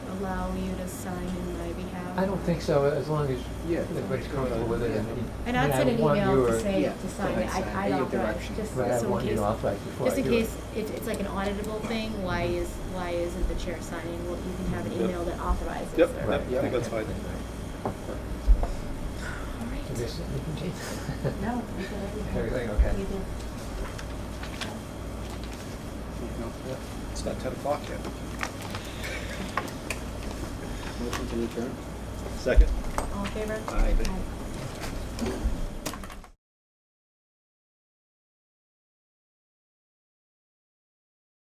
allow you to sign in my behalf? I don't think so, as long as Yeah. everybody's comfortable with it. Yeah. and- And I I'd mean, send an I want email your- to say yeah, to sign to it, sign I- I'd in your authorize, direction. just so in Right, case. I want you to authorize before I Just do in it. case, it, it's like an auditable thing, why is, why isn't the chair signing? Well, you can have an Yep. email that authorizes Yep, or- yep, I think that's fine. All So right. this, you can take- No, we did everything. Everything, okay. We did. It's not ten o'clock yet. Motion to adjourn? Second. All in favor? Aye. Aye.